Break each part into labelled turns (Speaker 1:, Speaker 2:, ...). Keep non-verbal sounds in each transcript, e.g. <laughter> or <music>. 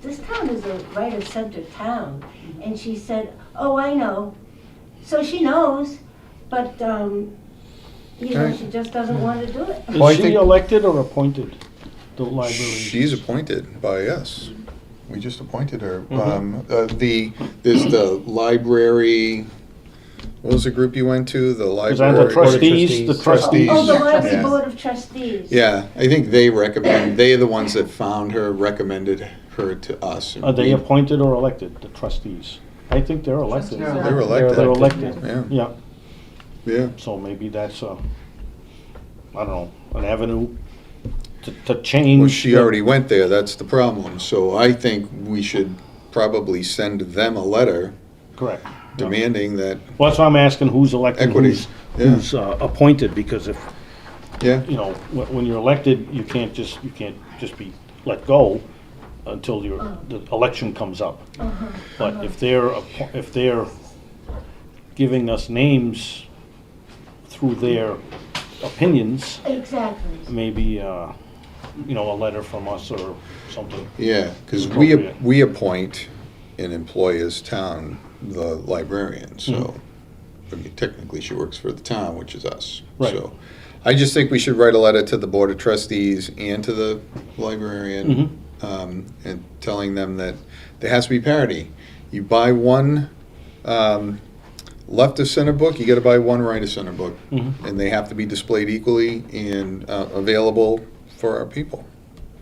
Speaker 1: this town is a right of center town. And she said, oh, I know. So she knows, but, um, you know,
Speaker 2: Right.
Speaker 1: she just doesn't want to do it.
Speaker 2: Well, I
Speaker 3: Is she
Speaker 2: think-
Speaker 3: elected or appointed, the librarian?
Speaker 2: She's appointed by us. We just appointed her.
Speaker 3: Mm-hmm.
Speaker 2: Um, uh, the, there's the library, what was the group you went to? The
Speaker 3: Is that
Speaker 2: library.
Speaker 3: the trustees, the
Speaker 4: Trustees.
Speaker 3: trustees?
Speaker 1: Oh, the
Speaker 2: Trustees.
Speaker 1: library
Speaker 2: Yeah.
Speaker 1: board of trustees.
Speaker 2: Yeah, I think they recommend, they are the ones that found her, recommended her to us.
Speaker 3: Are they
Speaker 2: We-
Speaker 3: appointed or elected, the trustees? I think they're elected.
Speaker 5: Trustees are
Speaker 2: They're elected.
Speaker 3: They're elected,
Speaker 2: Yeah,
Speaker 3: yeah.
Speaker 2: yeah.
Speaker 3: So maybe that's a, I don't know, an avenue to, to change.
Speaker 2: Well, she
Speaker 3: the-
Speaker 2: already went there, that's the problem. So I think we should probably send them a letter
Speaker 3: Correct.
Speaker 2: demanding that,
Speaker 3: Well, that's why I'm asking who's elected,
Speaker 2: Equity,
Speaker 3: who's,
Speaker 2: yeah.
Speaker 3: who's uh, appointed, because if,
Speaker 2: yeah,
Speaker 3: you know, wh- when you're elected, you can't just, you can't just be let go until your, the election comes up. But if they're, appo- if they're giving us names through their opinions,
Speaker 1: Exactly.
Speaker 3: maybe, uh, you know, a letter from us or something.
Speaker 2: yeah. Because we,
Speaker 3: Appropriate.
Speaker 2: we appoint an employer's town, the librarian,
Speaker 3: Hmm.
Speaker 2: so. I mean, Technically, she works for the town, which is us.
Speaker 3: Right.
Speaker 2: So I just think we should write a letter to the Board of Trustees and to the librarian
Speaker 6: Mm-hmm.
Speaker 3: Mhm.
Speaker 2: um, and telling them that there has to be parity. You buy one um, left of center book, you got to buy one right of center book,
Speaker 3: Mhm.
Speaker 2: and they have to be displayed equally and uh, available for our people.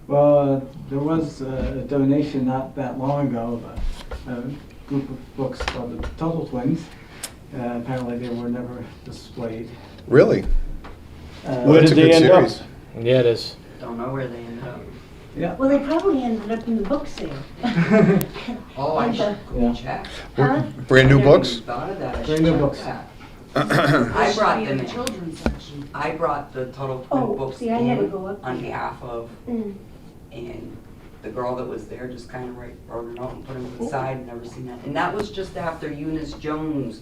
Speaker 5: Well, uh, there was uh, a donation not that long ago of a, a group of books called the Total Twins. Uh, apparently, they were never displayed.
Speaker 2: Really,
Speaker 5: Uh,
Speaker 3: Where
Speaker 2: That's
Speaker 3: did
Speaker 2: a
Speaker 3: they
Speaker 2: good
Speaker 3: end up?
Speaker 2: series.
Speaker 4: Yeah, it is.
Speaker 6: Don't know where they end up.
Speaker 5: Yeah.
Speaker 1: Well, they probably ended up in the book sale.
Speaker 6: Oh, I should
Speaker 5: Yeah.
Speaker 6: go check.
Speaker 1: Huh?
Speaker 2: brand
Speaker 6: I
Speaker 2: new
Speaker 6: never
Speaker 2: books.
Speaker 3: <coughs>
Speaker 6: even thought of that. I
Speaker 5: Brand
Speaker 6: should
Speaker 5: new
Speaker 6: check
Speaker 5: books.
Speaker 6: that.
Speaker 7: I
Speaker 6: I brought
Speaker 7: in
Speaker 6: them
Speaker 7: the
Speaker 6: in.
Speaker 7: children's section.
Speaker 6: I brought the Total
Speaker 1: Oh,
Speaker 6: Twin books
Speaker 1: see, I never
Speaker 6: in
Speaker 1: go up
Speaker 6: on
Speaker 1: there.
Speaker 6: behalf of,
Speaker 1: Mm.
Speaker 6: and the girl that was there just kind of wrote it out and put them to the side, and never seen that. And that was just after Eunice Jones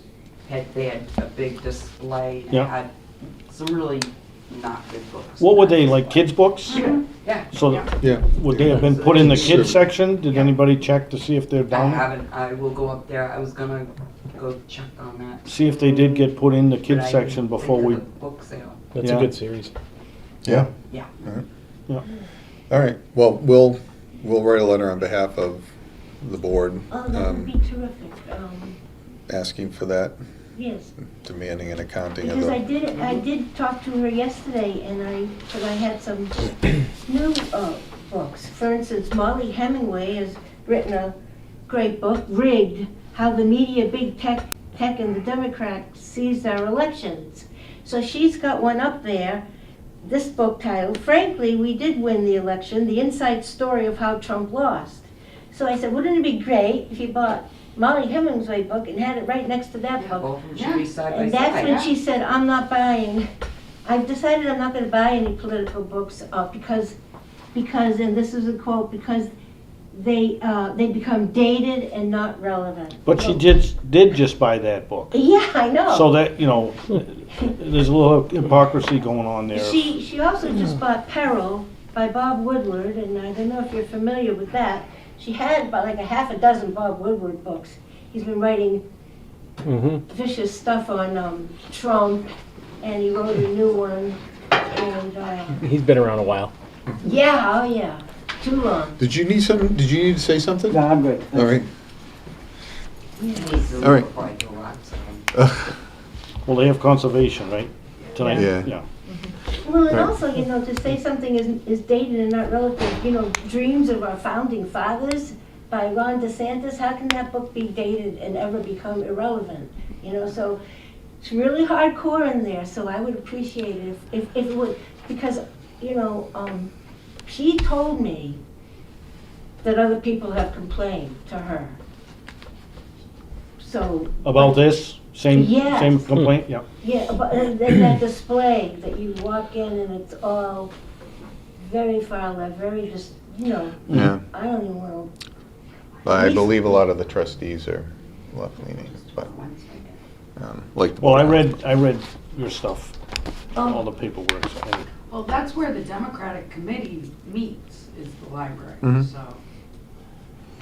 Speaker 6: had, they had a big display. and
Speaker 3: Yeah.
Speaker 6: had Some really not good books.
Speaker 3: What were they, like kids' books?
Speaker 6: Yeah.
Speaker 3: So
Speaker 6: yeah.
Speaker 2: Yeah,
Speaker 3: Would they have been put in the kids section? Did anybody check to see if they're
Speaker 6: I
Speaker 3: down?
Speaker 6: haven't, I will go up there. I was gonna go check on that.
Speaker 3: See if they did get put in the
Speaker 6: but
Speaker 3: kids
Speaker 6: I
Speaker 3: section
Speaker 6: didn't
Speaker 3: before
Speaker 6: think
Speaker 3: we,
Speaker 6: of the Book sale.
Speaker 4: That's
Speaker 3: Yeah.
Speaker 4: a good series.
Speaker 2: yeah.
Speaker 6: Yeah.
Speaker 2: All right. Well, we'll we'll write a letter on behalf of the board,
Speaker 1: Oh, that would be
Speaker 2: um,
Speaker 1: terrific, um,
Speaker 2: asking for that,
Speaker 1: yes.
Speaker 2: demanding an accounting of
Speaker 1: Because I
Speaker 2: the.
Speaker 1: did, I did talk to her yesterday, and I, but I had some new uh, books. For instance, Molly Hemingway has written a great book, Rigged, How the Media, Big Tech, Tech and the Democrats Seized Our Elections. So she's got one up there, this book titled, Frankly, We Did Win the Election, The Inside Story of How Trump Lost. So I said, wouldn't it be great if you bought Molly Hemingway book and had it right next to that book?
Speaker 6: Both of them should be side by
Speaker 1: And that's when
Speaker 6: side.
Speaker 1: she said, I'm not buying, I've decided I'm not gonna buy any political books, uh, because, because, and this is a quote, because they, uh, they become dated and not relevant.
Speaker 3: but she did, did just buy that book.
Speaker 1: Yeah, I know.
Speaker 3: So that, you know, there's a little hypocrisy going on there.
Speaker 1: She, she also just bought Peril by Bob Woodward, and I don't know if you're familiar with that. She had about like a half a dozen Bob Woodward books. He's been writing
Speaker 4: Mm-hmm.
Speaker 1: vicious stuff on, um, Trump, and he wrote a new one, and, uh,
Speaker 4: He's been around a while.
Speaker 1: yeah, oh yeah, too long.
Speaker 2: Did you need some? Did you need to say something?
Speaker 5: No, I'm good.
Speaker 2: All right.
Speaker 6: Needs to
Speaker 2: All right.
Speaker 6: look before I go out, so.
Speaker 3: Well, they have conservation, right? Tonight?
Speaker 2: Yeah.
Speaker 3: Yeah.
Speaker 1: Well, and
Speaker 2: Right.
Speaker 1: also, you know, to say something is, is dated and not relative, you know, Dreams of Our Founding Fathers by Ron DeSantis, how can that book be dated and ever become irrelevant? You know, so it's really hardcore in there, so I would appreciate it if, if, if it would, because, you know, um, she told me that other people have complained to her. So,
Speaker 3: About this, same,
Speaker 1: Yes. Hmm.
Speaker 3: same complaint, yeah.
Speaker 1: yeah, but uh, then that display that you walk in and it's all very far left, very just, you know,
Speaker 2: <laughs> Yeah,
Speaker 1: I don't even want to.
Speaker 2: I believe a lot of the trustees are left leaning, but
Speaker 6: Once I get-
Speaker 2: um, like. the
Speaker 3: Well, I
Speaker 2: board.
Speaker 3: read, I read your stuff, all
Speaker 1: Oh,
Speaker 3: the paperwork. so I-
Speaker 7: Well, that's where the Democratic Committee meets, is the library,
Speaker 2: Mhm.
Speaker 7: so.